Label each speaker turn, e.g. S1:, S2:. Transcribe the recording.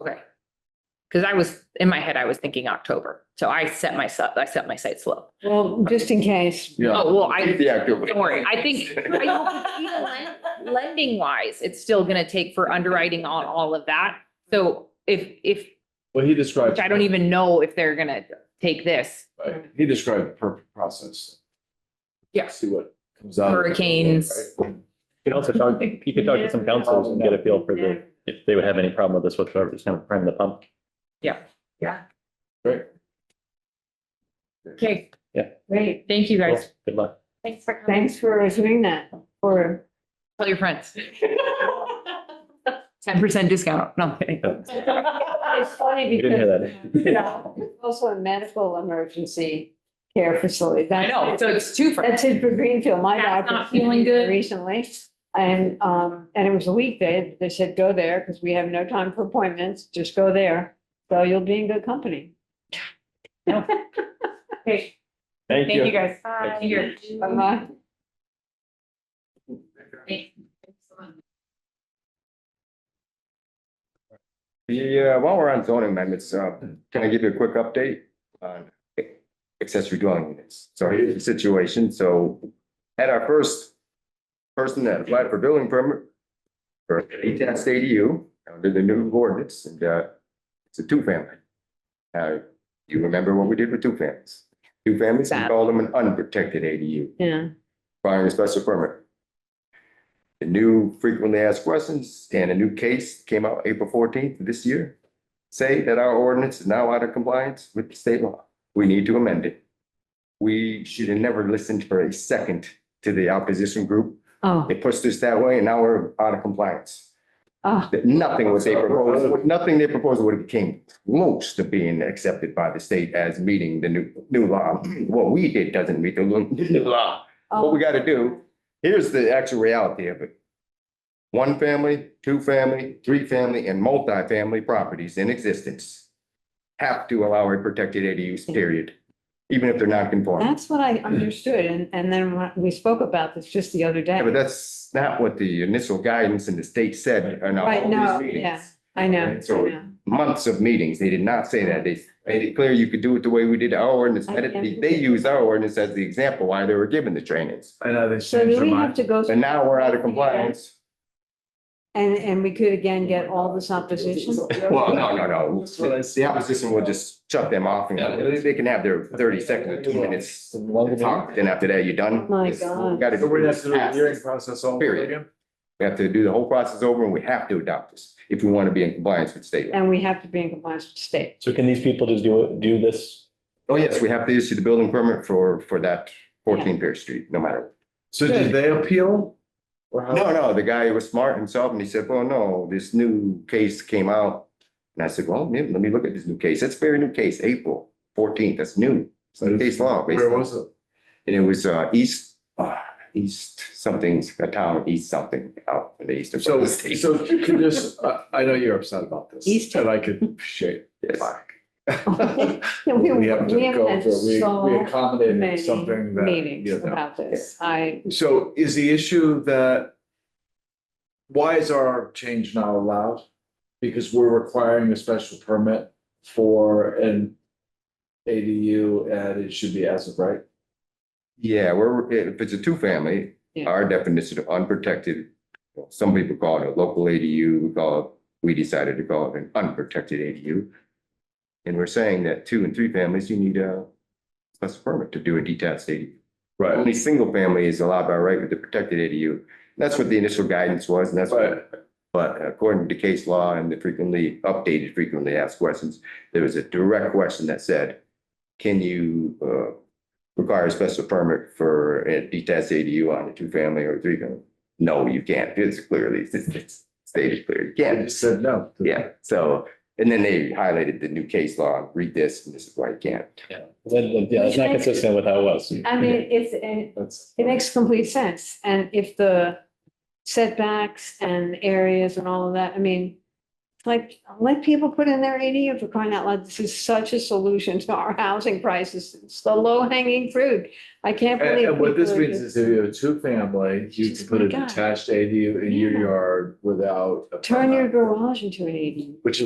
S1: Okay. Cause I was, in my head, I was thinking October, so I set myself, I set my sights low.
S2: Well, just in case.
S3: Yeah.
S1: Oh, well, I,
S3: The active.
S1: don't worry, I think, I- lending wise, it's still gonna take for underwriting on all of that. So if, if,
S3: Well, he described.
S1: which I don't even know if they're gonna take this,
S3: Right. He described the perfect process.
S1: Yeah.
S3: See what comes out.
S1: hurricanes.
S3: Right.
S4: You could also talk, you could talk to some counselors and get a feel for the, if they would have any problem with this whatsoever, just kind of prime the pump.
S1: Okay,
S2: Great.
S1: thank you guys.
S4: Good luck.
S5: Thanks for coming.
S2: Thanks for doing that, for.
S1: Tell your friends. Ten percent discount. No, I'm kidding.
S2: It's funny
S4: You didn't
S2: because,
S4: hear
S2: you know, it's also a medical emergency care facility.
S1: I know, so it's two for,
S2: That's it for Greenfield. My
S1: Cat's
S2: doctor
S1: not feeling good.
S2: recently. And, um, and it was a weekday. They said, go there because we have no time for appointments. Just go there. So you'll be in good company.
S1: okay,
S4: Thank
S1: thank you guys.
S5: Bye.
S1: Thank you. Uh-huh.
S2: Bye-bye.
S6: Yeah, while we're on zoning amendments, uh, can I give you a quick update on accessory dwelling units? So here's the situation, so at our first person that applied for building permit for ATAS ADU, under the new ordinance, and, uh, it's a two-family. Uh, you remember what we did with two families? Two families, we
S2: Bad.
S6: called them an unprotected ADU
S2: Yeah.
S6: requiring a special permit. The new frequently asked questions and a new case came out April fourteenth this year. Say that our ordinance is now out of compliance with the state law. We need to amend it. We should have never listened for a second to the opposition group.
S2: Oh,
S6: They pushed us that way and now we're out of compliance.
S2: oh,
S6: That nothing was they proposed, nothing they proposed would have came close to being accepted by the state as meeting the new, new law. What we did doesn't meet the new new law
S2: Oh.
S6: what we gotta do, here's the actual reality of it. One family, two family, three family, and multifamily properties in existence have to allow a protected ADU, period, even if they're not conforming.
S2: that's what I understood. And, and then when we spoke about this just the other day.
S6: Yeah, But that's not what the initial guidance in the state said in
S2: Right,
S6: all
S2: no, yeah.
S6: these meetings.
S2: I know.
S6: Right, so-
S2: I know.
S6: Months of meetings, they did not say that. They made it clear you could do it the way we did our ordinance.
S2: I can't-
S6: They they used our ordinance as the example why they were given the trainings.
S3: I know they
S2: So do we have to go?
S6: And now we're out of compliance.
S2: And, and we could again get all this opposition?
S6: Well, no, no, no.
S3: That's what I see.
S6: The opposition will just shut them off and they can have their thirty seconds or two minutes. to talk. Then after that, you're done.
S2: My
S6: It's-
S2: God.
S6: we Gotta
S3: So
S6: do
S3: we have to
S6: this
S3: do the hearing
S6: fast.
S3: process all over
S6: Period.
S3: again?
S6: We have to do the whole process over and we have to adopt this if we want to be in compliance with state law.
S2: And we have to be in compliance with the state.
S4: So can these people just do, do this?
S6: Oh, yes, we have to issue the building permit for, for that fourteen Pierce Street, no matter.
S3: So did they appeal? Or how-
S6: No, no, the guy was smart himself and he said, well, no, this new case came out. And I said, well, yeah, let me look at this new case. That's a very new case, April fourteenth, that's new. It's new case law. based
S3: Where
S6: on-
S3: was it?
S6: And it was uh east, uh east something, a town, east something out in the eastern. part of
S3: So,
S6: the state.
S3: so if you could just, I, I know you're upset about this.
S2: East.
S3: And I could appreciate it.
S6: Yes.
S3: Fuck.
S2: Yeah, we-
S3: We have
S2: we
S3: to
S2: have
S3: go
S2: had
S3: for, we, we
S2: so
S3: accommodated
S2: many
S3: something that.
S2: Meetings
S3: you know.
S2: about this. I,
S3: So is the issue that why is our change not allowed? Because we're requiring a special permit for an ADU and it should be as of right?
S6: Yeah, we're, if it's a two-family,
S2: Yeah.
S6: our definition of unprotected, some people call it a local ADU, we call it, we decided to call it an unprotected ADU. And we're saying that two and three families, you need a special permit to do a detached ADU. Only single family is allowed by right with the protected ADU. That's what the initial guidance was, and that's what
S3: But
S6: But according to case law and the frequently updated, frequently asked questions, there was a direct question that said, can you uh, require a special permit for a detached ADU on a two-family or three-family? No, you can't. It's clearly, it's- it's stated clear, you
S3: they
S6: can't.
S3: just said no.
S6: Yeah, so, and then they highlighted the new case law, read this, and this is why you can't.
S4: Then, yeah, it's not consistent with how it was.
S2: I mean, it's, it
S3: That's.
S2: it makes complete sense. And if the setbacks and areas and all of that, I mean, like, let people put in their ADU for crying out loud. This is such a solution to our housing crisis. It's the low hanging fruit. I can't
S3: And,
S2: believe.
S3: and what this
S2: people are
S3: means
S2: just-
S3: is if you have a two-family, you can
S2: Just
S3: put
S2: my
S3: a
S2: God.
S3: detached ADU in your
S2: Yeah.
S3: yard without. a
S2: Turn your
S3: permit.
S2: garage into an ADU.
S3: Which